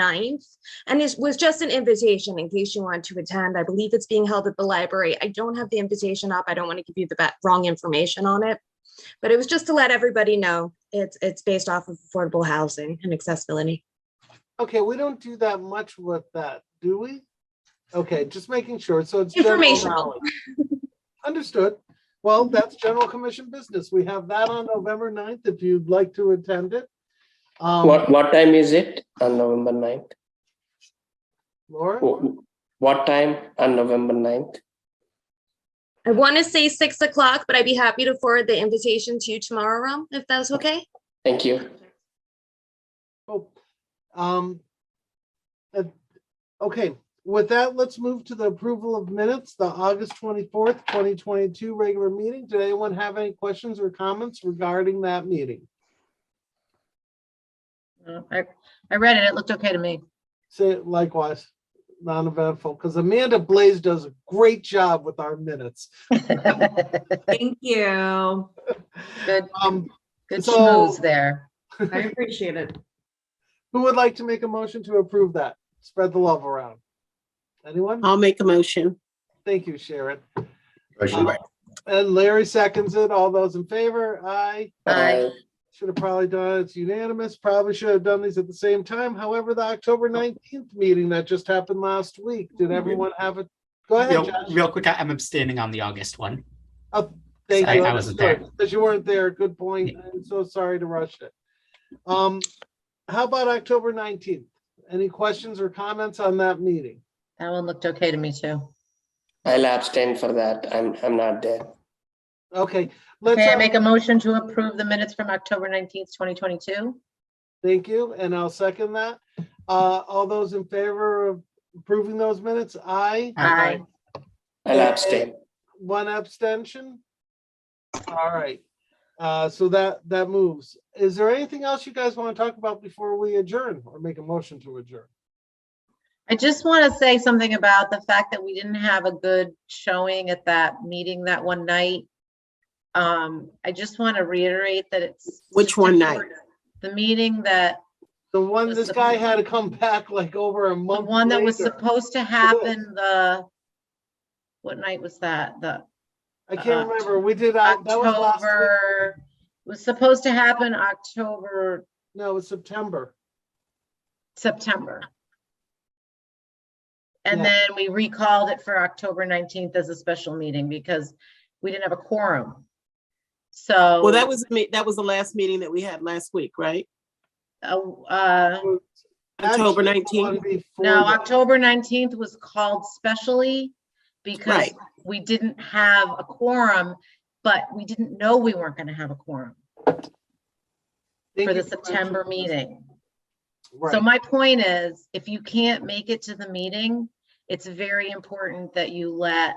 9th. And it was just an invitation in case you want to attend. I believe it's being held at the library. I don't have the invitation up. I don't want to give you the ba- wrong information on it. But it was just to let everybody know it's, it's based off of affordable housing and accessibility. Okay, we don't do that much with that, do we? Okay, just making sure. So it's. general Informational. knowledge. Understood. Well, that's general commission business. We have that on November 9th if you'd like to attend it. Um, What, what time is it on November 9th? Laura, Wh- What time on November 9th? I want to say six o'clock, but I'd be happy to forward the invitation to you tomorrow, Ram, if that's okay. Thank you. Oh, um, uh, okay, with that, let's move to the approval of minutes, the August 24th, 2022 regular meeting. Did anyone have any questions or comments regarding that meeting? Uh, I, I read it. It looked okay to me. Say it likewise, non-eventful, because Amanda Blaze does a great job with our minutes. Thank you. Good, Um, good So- schmooze there. I appreciate it. who would like to make a motion to approve that? Spread the love around. Anyone? I'll make a motion. Thank you, Sharon. Uh, Um, Motion by And Larry seconds it. All those in favor? Aye. Aye. Uh, Should have probably done it. It's unanimous. Probably should have done these at the same time. However, the October 19th meeting that just happened last week, did everyone have it? Go ahead, Real, Josh. real quick, I- I'm abstaining on the August one. Thank I- you. I wasn't there. Because you weren't there. Good point. I'm so sorry to rush it. Um, how about October nineteenth? Any questions or comments on that meeting? That one looked okay to me too. I'll abstain for that. I'm, I'm not there. Okay, let's, um, Okay, I have- make a motion to approve the minutes from October nineteenth, twenty twenty-two. thank you, and I'll second that. Uh, all those in favor of approving those minutes, aye, Aye. I'll Yeah. abstain. one abstention? All right, uh, so that, that moves. Is there anything else you guys want to talk about before we adjourn or make a motion to adjourn? I just want to say something about the fact that we didn't have a good showing at that meeting that one night. Um, I just want to reiterate that it's. Which just one night? important. The meeting that, The one, this Listen. guy had to come back like over a the month. one that was later. supposed to happen, the, what night was that? The I can't uh, remember. We did, uh, that was last week. October, was supposed to happen October, No, it's September. September. And Yeah. then we recalled it for October 19th as a special meeting because we didn't have a quorum. So. Oh. Well, that was, me. that was the last meeting that we had last week, right? uh, uh, October Actually, the one 19th. before No, that. October 19th was called specially because Right. we didn't have a quorum, but we didn't know we weren't going to have a quorum Thank for you the September mentioning this. meeting. So Right, my point is, if you can't make it to the meeting, it's very important that you let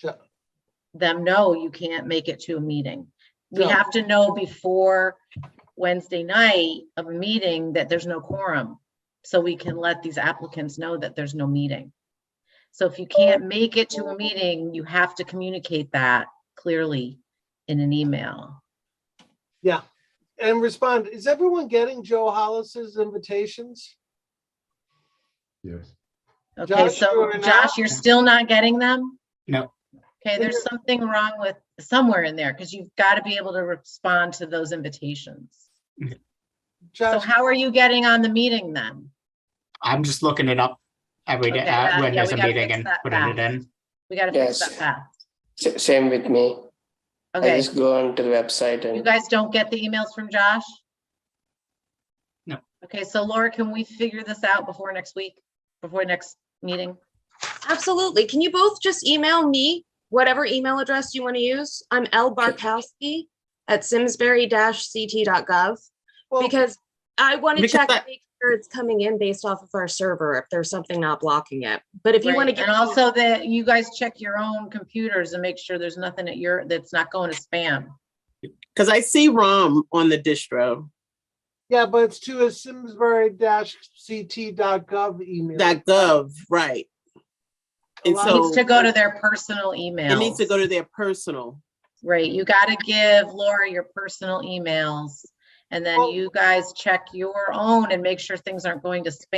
Jo- them know you can't make it to a meeting. We Yeah. have to know before Wednesday night of a meeting that there's no quorum. So we can let these applicants know that there's no meeting. So if you can't make it to a meeting, you have to communicate that clearly in an email. and respond, is everyone getting Joe Hollis's invitations? yes. Okay, Josh, you so are not- Josh, you're still not getting them? No. Okay, there's something wrong with, somewhere in there, because you've got to be able to respond to those invitations. So Josh, how are you getting on the meeting then? I'm just looking it up every day, Okay, uh, that- when yeah, there's we a gotta meeting fix and that putting it fast. in. We got to fix that Yes. fast. S- Same with me. I Okay, just go onto the website you and guys don't get the emails from Josh? No. Okay, so Laura, can we figure this out before next week, before next meeting? Absolutely. Can you both just email me whatever email address you want to use? I'm L Barkowski at simsbury-ct.gov well, because I want to Because check I- and make sure it's coming in based off of our server if there's something not blocking it. But if you want to Right, get And also that you guys check your own computers and make sure there's nothing at your, that's not going to spam. Because I see ROM on the distro, yeah, but it's to a simsbury-ct.gov email. that gov, right? And It It needs so to go to their personal it email. needs to go to their personal. Right, you gotta give Laura your personal emails. And then Well- you guys check your own and make sure things aren't going to spam.